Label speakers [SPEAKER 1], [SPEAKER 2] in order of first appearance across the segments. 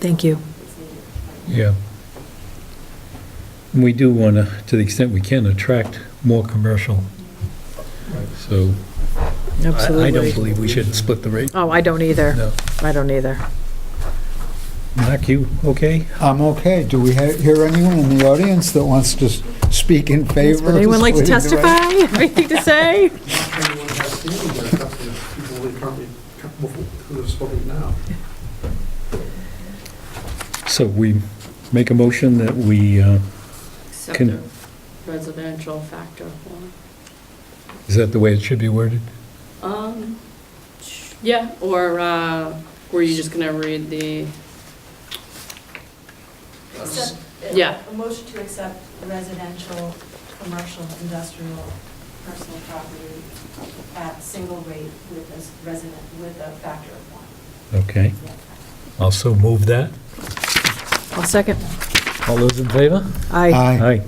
[SPEAKER 1] Thank you.
[SPEAKER 2] Yeah. And we do want to, to the extent we can, attract more commercial. So I- I don't
[SPEAKER 1] Absolutely.
[SPEAKER 2] believe we should split the rate.
[SPEAKER 1] Oh, I don't either.
[SPEAKER 2] No.
[SPEAKER 1] I don't either.
[SPEAKER 2] Mark, you okay?
[SPEAKER 3] I'm okay. Do we ha- hear anyone in the audience that wants to s- speak in favor?
[SPEAKER 1] Would
[SPEAKER 3] of
[SPEAKER 1] anyone like to
[SPEAKER 3] splitting the rate?
[SPEAKER 1] testify? Anything to say?
[SPEAKER 4] anyone has standing there, except for the people that currently, who have spoken now.
[SPEAKER 2] So we make a motion that we, uh,
[SPEAKER 5] Except
[SPEAKER 2] Can-
[SPEAKER 5] the residential factor of one.
[SPEAKER 2] is that the way it should be worded?
[SPEAKER 5] Um, yeah, or, uh, were you just gonna read the?
[SPEAKER 6] Accept-
[SPEAKER 5] Yeah.
[SPEAKER 6] uh, A motion to accept residential, commercial, industrial, personal property at single rate with a s- resident, with a factor of one.
[SPEAKER 2] Okay.
[SPEAKER 6] Yeah.
[SPEAKER 2] Also move that.
[SPEAKER 1] I'll second.
[SPEAKER 2] All those in favor?
[SPEAKER 1] Aye.
[SPEAKER 3] Aye.
[SPEAKER 2] Aye.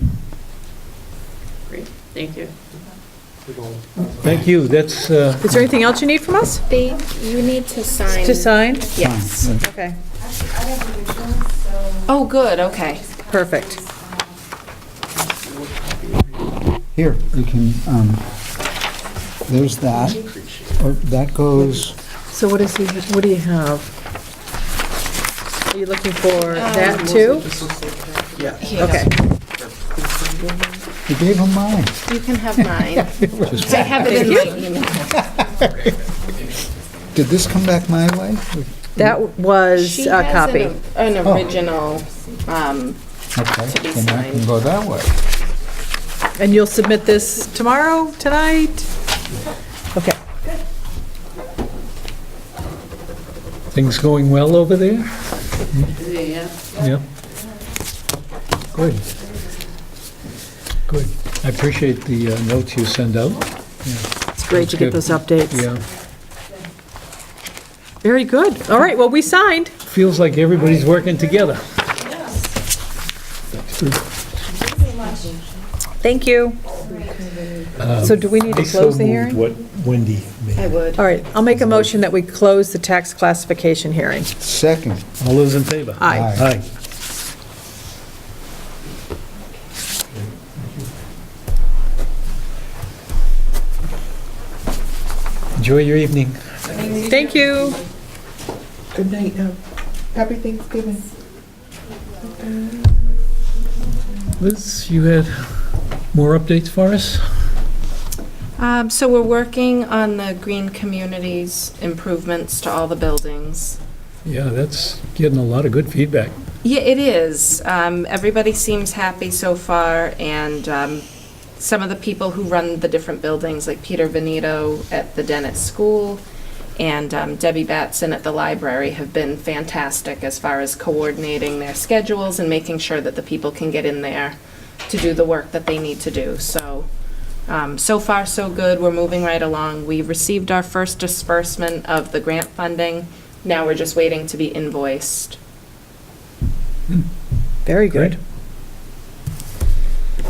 [SPEAKER 5] Great, thank you.
[SPEAKER 4] They've all
[SPEAKER 2] Thank you. That's, uh,
[SPEAKER 1] Is there anything else you need from us?
[SPEAKER 7] They, you need to sign.
[SPEAKER 1] To sign?
[SPEAKER 7] Yes.
[SPEAKER 1] Okay.
[SPEAKER 6] Actually, I have originals, so.
[SPEAKER 7] Oh, good, okay.
[SPEAKER 6] just copies,
[SPEAKER 1] perfect.
[SPEAKER 6] um,
[SPEAKER 3] Here, you can, um, there's that. Oh, That goes,
[SPEAKER 1] So what is he, what do you have? Are you looking for that too? Okay.
[SPEAKER 3] you gave him mine.
[SPEAKER 7] You can have mine. I have it in my email.
[SPEAKER 3] Did this come back my way?
[SPEAKER 1] That was
[SPEAKER 7] She
[SPEAKER 1] a
[SPEAKER 7] has
[SPEAKER 1] copy.
[SPEAKER 7] an- An
[SPEAKER 3] Oh.
[SPEAKER 7] original, um,
[SPEAKER 3] Okay,
[SPEAKER 7] To be
[SPEAKER 3] then I can
[SPEAKER 7] signed.
[SPEAKER 3] go that way.
[SPEAKER 1] And you'll submit this tomorrow, tonight? Okay.
[SPEAKER 2] things going well over there?
[SPEAKER 5] Yeah.
[SPEAKER 2] Yeah. Good. Good. I appreciate the uh, notes you send out.
[SPEAKER 1] It's great to get
[SPEAKER 2] That's
[SPEAKER 1] those updates.
[SPEAKER 2] Yeah.
[SPEAKER 1] Very good. All right, well, we signed.
[SPEAKER 2] Feels like everybody's working together.
[SPEAKER 1] Thank you. So do we need to close the hearing? Oh.
[SPEAKER 2] what Wendy
[SPEAKER 7] I would.
[SPEAKER 1] All right, I'll make a motion that we close the tax classification hearing.
[SPEAKER 3] Second.
[SPEAKER 2] All those in favor?
[SPEAKER 1] Aye.
[SPEAKER 2] Aye. Enjoy your evening.
[SPEAKER 1] Thank you.
[SPEAKER 8] Good night now. Happy Thanksgiving.
[SPEAKER 2] Liz, you had more updates for us?
[SPEAKER 7] Um, so we're working on the green communities improvements to all the buildings.
[SPEAKER 2] Yeah, that's getting a lot of good feedback.
[SPEAKER 7] Yeah, it is. Um, everybody seems happy so far, and um, some of the people who run the different buildings, like Peter Veneto at the Dennett School and um, Debbie Batson at the library, have been fantastic as far as coordinating their schedules and making sure that the people can get in there to do the work that they need to do. So, um, so far, so good. We're moving right along. We received our first disbursement of the grant funding. Now we're just waiting to be invoiced.
[SPEAKER 1] Very good.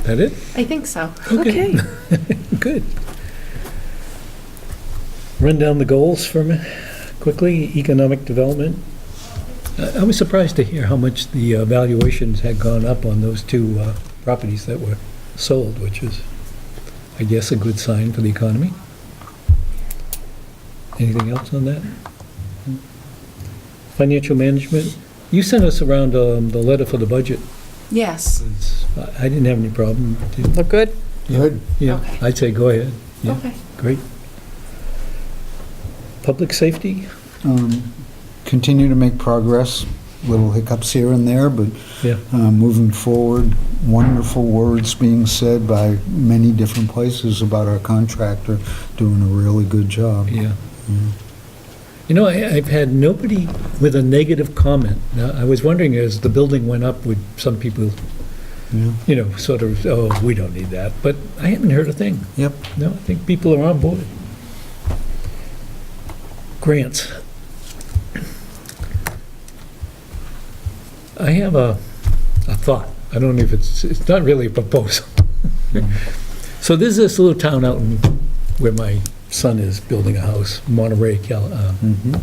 [SPEAKER 2] That it?
[SPEAKER 7] I think so.
[SPEAKER 1] Okay.
[SPEAKER 2] Good. Run down the goals for me quickly. Economic development. I I was surprised to hear how much the uh, valuations had gone up on those two uh, properties that were sold, which is, I guess, a good sign for the economy. Anything else on that? Financial management. You sent us around um, the letter for the budget.
[SPEAKER 7] Yes.
[SPEAKER 2] It's- I I didn't have any problem. Did-
[SPEAKER 1] Look good?
[SPEAKER 3] Good.
[SPEAKER 2] Yeah,
[SPEAKER 7] Okay.
[SPEAKER 2] I'd say go ahead. Yeah.
[SPEAKER 7] Okay.
[SPEAKER 2] Great. Public safety?
[SPEAKER 3] Um, Continue to make progress, little hiccups here and there, but
[SPEAKER 2] Yeah.
[SPEAKER 3] uh, moving forward, wonderful words being said by many different places about our contractor doing a really good job.
[SPEAKER 2] Yeah. Mm-hmm. You know, I- I've had nobody with a negative comment. Now, I was wondering, as the building went up, would some people,
[SPEAKER 3] Yeah.
[SPEAKER 2] you know, sort of, oh, we don't need that, but I haven't heard a thing.
[SPEAKER 3] Yep.
[SPEAKER 2] No, I think people are on board. Grants. I have a, a thought. I don't know if it's, it's not really a proposal. So there's this little town out in, where my son is building a house, Monterey, Cal, uh,
[SPEAKER 3] Mhm.